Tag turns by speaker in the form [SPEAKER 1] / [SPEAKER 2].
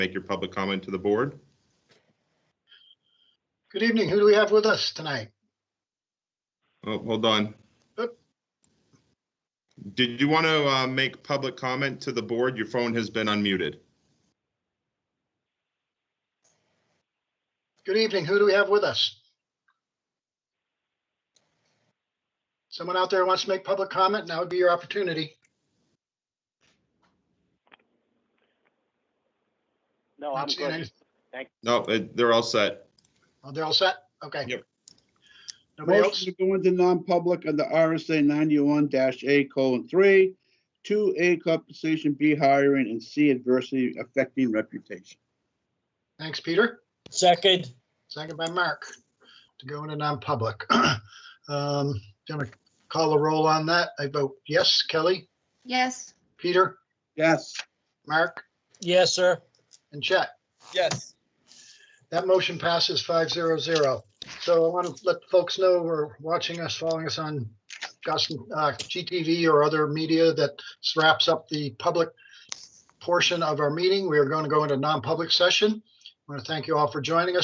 [SPEAKER 1] make your public comment to the board.
[SPEAKER 2] Good evening. Who do we have with us tonight?
[SPEAKER 1] Oh, hold on.
[SPEAKER 2] Yep.
[SPEAKER 1] Did you want to uh, make public comment to the board? Your phone has been unmuted.
[SPEAKER 2] Good evening. Who do we have with us? Someone out there wants to make public comment? Now would be your opportunity.
[SPEAKER 3] No, Oh, I'm
[SPEAKER 2] Not seeing
[SPEAKER 3] good.
[SPEAKER 2] any-
[SPEAKER 1] No, uh, they're all set.
[SPEAKER 2] Oh, They're all set? Okay.
[SPEAKER 1] Yep.
[SPEAKER 2] Nobody else?
[SPEAKER 4] Motion to go into non-public under RSA ninety-one A colon three, two A compensation, B hiring, and C adversity affecting reputation.
[SPEAKER 2] Thanks, Peter.
[SPEAKER 5] Second,
[SPEAKER 2] Second by Mark to go into non-public. Um, Gonna call a roll on that. I vote yes. Kelly,
[SPEAKER 6] Yes,
[SPEAKER 2] Peter,
[SPEAKER 4] Yes,
[SPEAKER 2] Mark,
[SPEAKER 5] yes, sir.
[SPEAKER 2] and Chet.
[SPEAKER 5] Yes.
[SPEAKER 2] That motion passes five zero zero. So I want to let folks know we're watching us, following us on Gus- uh, GTV or other media that wraps up the public portion of our meeting. We are going to go into non-public session. I want to thank you all for joining us.